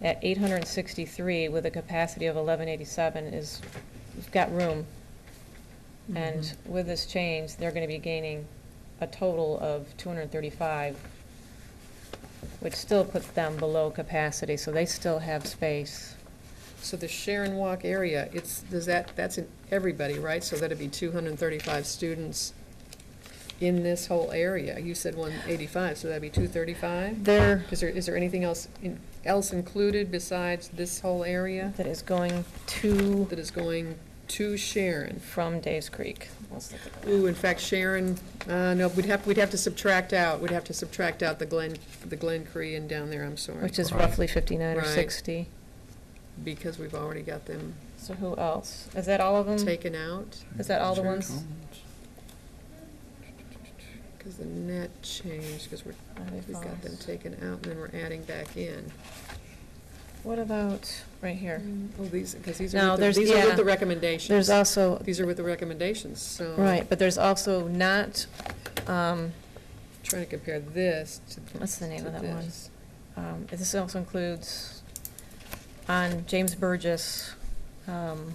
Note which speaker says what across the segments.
Speaker 1: that 863 with a capacity of 1187 is, we've got room. And with this change, they're going to be gaining a total of 235, which still puts them below capacity, so they still have space.
Speaker 2: So the Sharon Walk area, it's, does that, that's in everybody, right? So that'd be two hundred and thirty-five students in this whole area. You said one eighty-five, so that'd be two thirty-five?
Speaker 1: There.
Speaker 2: Is there, is there anything else, in- else included besides this whole area
Speaker 1: That is going to,
Speaker 2: that is going to Sharon?
Speaker 1: from Dave's Creek. Let's look at that.
Speaker 2: Ooh, in fact, Sharon, uh, no, we'd have, we'd have to subtract out, we'd have to subtract out the Glen, the Glen Cree and down there, I'm sorry,
Speaker 1: Which is roughly 59 or
Speaker 2: Right.
Speaker 1: 60.
Speaker 2: because we've already got them
Speaker 1: So who else? Is that all of them?
Speaker 2: taken out.
Speaker 1: Is that all the ones?
Speaker 2: Because the net changed, because we're,
Speaker 1: Oh, they
Speaker 2: we've got them
Speaker 1: lost.
Speaker 2: taken out, and then we're adding back in.
Speaker 1: What about, right here?
Speaker 2: Oh, these, because these
Speaker 1: No,
Speaker 2: are, with
Speaker 1: there's-
Speaker 2: the- these are
Speaker 1: yeah.
Speaker 2: with the recommendations.
Speaker 1: There's also,
Speaker 2: These are with the recommendations, so.
Speaker 1: right, but there's also not, um,
Speaker 2: Trying to compare this to.
Speaker 1: What's the name
Speaker 2: to
Speaker 1: of that one?
Speaker 2: this.
Speaker 1: um, this also includes on James Burgess, um,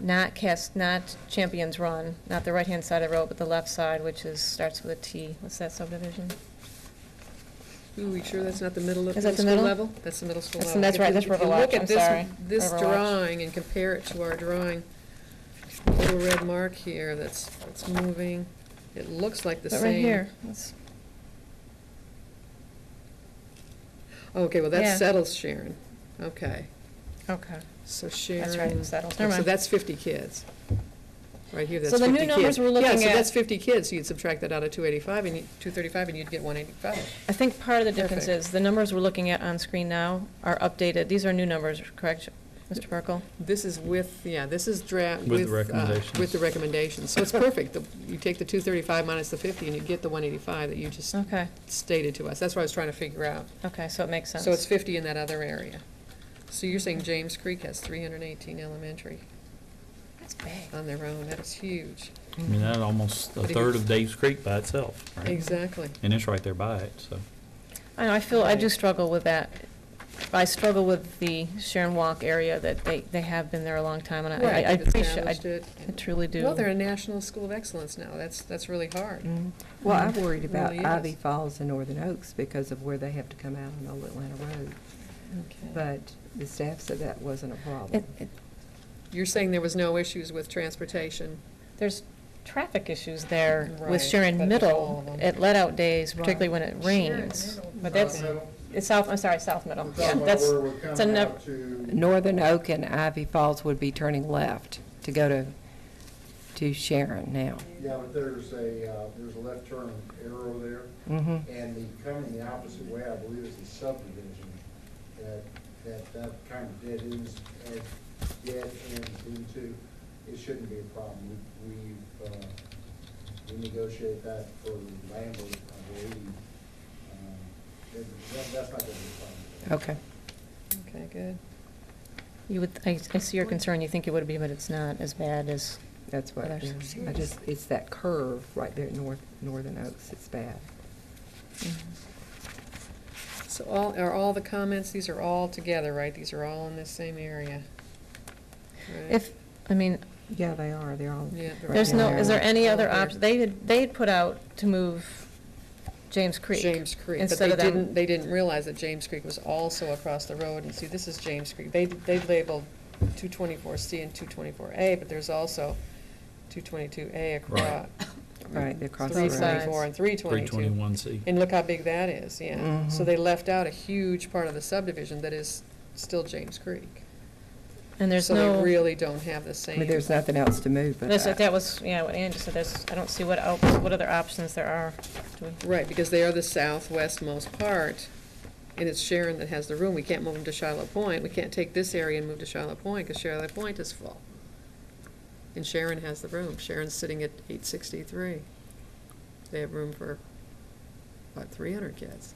Speaker 1: not cast, not Champions Run, not the right-hand side of the road, but the left side, which is, starts with a T. What's that subdivision?
Speaker 2: Ooh, you sure that's not the middle of,
Speaker 1: Is
Speaker 2: middle
Speaker 1: that the
Speaker 2: school
Speaker 1: middle?
Speaker 2: level? That's the middle school
Speaker 1: That's-
Speaker 2: level.
Speaker 1: that's
Speaker 2: If you-
Speaker 1: right, that's Riverwatch, I'm sorry,
Speaker 2: If you look at this, this
Speaker 1: Riverwatch.
Speaker 2: drawing and compare it to our drawing, little red mark here, that's, that's moving, it looks like the
Speaker 1: But
Speaker 2: same.
Speaker 1: right here, that's-
Speaker 2: Okay, well,
Speaker 1: Yeah.
Speaker 2: that settles Sharon, okay.
Speaker 1: okay,
Speaker 2: So
Speaker 1: that's right,
Speaker 2: Sharon,
Speaker 1: it's that, never
Speaker 2: so
Speaker 1: mind.
Speaker 2: that's 50 kids. Right here, that's
Speaker 1: So
Speaker 2: 50
Speaker 1: the
Speaker 2: kids.
Speaker 1: new numbers we're looking
Speaker 2: Yeah, so
Speaker 1: at-
Speaker 2: that's 50 kids, so you'd subtract that out of 285, and you, 235, and you'd get 185.
Speaker 1: I think part of the difference
Speaker 2: Perfect.
Speaker 1: is, the numbers we're looking at on screen now are updated, these are new numbers, correct, Mr. Burkle?
Speaker 2: This is with, yeah, this is draft.
Speaker 3: With the
Speaker 2: uh,
Speaker 3: recommendations.
Speaker 2: With the recommendations, so it's perfect. The- You take the 235 minus the 50, and you get the 185 that you just
Speaker 1: Okay,
Speaker 2: stated to us. That's what I was trying to figure out.
Speaker 1: okay, so it makes sense.
Speaker 2: So it's 50 in that other area. So you're saying James Creek has 318 elementary
Speaker 1: That's big.
Speaker 2: on their own, that is huge.
Speaker 3: I mean, that's almost a third of Dave's Creek by itself, right?
Speaker 2: Exactly.
Speaker 3: And it's right there by it, so.
Speaker 1: I know, I feel, I do
Speaker 2: Right.
Speaker 1: struggle with that. I struggle with the Sharon Walk area, that they, they have been there a long time, and I- I, I
Speaker 2: Right, they've
Speaker 1: appreciate, I
Speaker 2: established it.
Speaker 1: I truly do. Mm.
Speaker 2: Well, they're a national school of excellence now. That's, that's really hard.
Speaker 4: Mhm. Well, I'm worried about
Speaker 2: Really is.
Speaker 4: Ivy Falls and Northern Oaks because of where they have to come out on Old Atlanta Road. But the staff said that wasn't a problem.
Speaker 1: It- it-
Speaker 2: You're saying there was no issues with transportation?
Speaker 1: There's traffic issues there
Speaker 2: Right,
Speaker 1: with Sharon
Speaker 2: but with all
Speaker 1: Middle
Speaker 2: of them.
Speaker 1: at let-out days, particularly when
Speaker 4: Right.
Speaker 1: it rains. But that's,
Speaker 5: Middle.
Speaker 1: it's south, I'm sorry, South Middle,
Speaker 5: We're
Speaker 1: yeah,
Speaker 5: talking about
Speaker 1: that's,
Speaker 5: where Uh, we're
Speaker 1: a
Speaker 5: coming
Speaker 1: nev-
Speaker 5: out to,
Speaker 4: Northern Oak and Ivy Falls would be turning left to go to, to Sharon now.
Speaker 5: yeah, but there's a, uh, there's a left turn arrow there,
Speaker 4: Mhm.
Speaker 5: and the coming the opposite way, I believe, is the subdivision. That, that, that kind of dead ends, and dead ends into, it shouldn't be a problem. We, we've, uh, we negotiate that for landlord, I believe. Um, that- that- That's not gonna be a problem.
Speaker 4: Okay.
Speaker 2: Okay, good.
Speaker 1: you would, I, I see your concern, you think it would be, but it's not as bad as,
Speaker 4: That's what,
Speaker 1: Others.
Speaker 4: yeah. I just, it's that curve right there at North, Northern Oaks, it's bad.
Speaker 2: Mm-hmm. So all, are all the comments, these are all together, right? These are all in this same area? right?
Speaker 1: if, I mean,
Speaker 4: Yeah, they are, they're all.
Speaker 2: Yeah, they're
Speaker 4: right
Speaker 1: There's
Speaker 4: down
Speaker 1: no,
Speaker 4: there.
Speaker 1: is there any
Speaker 2: All
Speaker 1: other
Speaker 2: there.
Speaker 1: option? They had, they had put out to move James Creek.
Speaker 2: James Creek. But
Speaker 1: instead
Speaker 2: they
Speaker 1: of them-
Speaker 2: didn't, they didn't realize that James Creek was also across the road, and see, this is James Creek. They, they labeled two twenty-four C and two twenty-four A, but there's also two twenty-two A across.
Speaker 3: Right.
Speaker 4: Right, they're across the
Speaker 2: Three
Speaker 4: road.
Speaker 1: Both sides.
Speaker 2: twenty-four and three
Speaker 3: Three
Speaker 2: twenty-two.
Speaker 3: twenty-one C.
Speaker 2: And look how big that is, yeah. So
Speaker 4: Mhm.
Speaker 2: they left out a huge part of the subdivision that is still James Creek.
Speaker 1: And there's
Speaker 2: So they
Speaker 1: no,
Speaker 2: really don't have the
Speaker 4: I
Speaker 2: same.
Speaker 4: mean, there's nothing else to move but
Speaker 1: that's,
Speaker 4: that.
Speaker 1: that was, yeah, what Ann just said, there's, I don't see what else, what other options there are. Do we-
Speaker 2: Right, because they are the southwestmost part, and it's Sharon that has the room. We can't move them to Charlotte Point. We can't take this area and move to Charlotte Point, because Charlotte Point is full. And Sharon has the room. Sharon's sitting at eight sixty-three. They have room for about three hundred kids.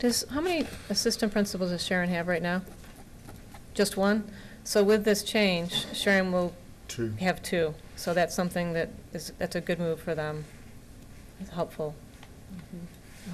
Speaker 1: Does, how many assistant principals does Sharon have right now? Just one? So with this change, Sharon will
Speaker 5: Two.
Speaker 1: have two, so that's something that is, that's a good move for them. It's helpful.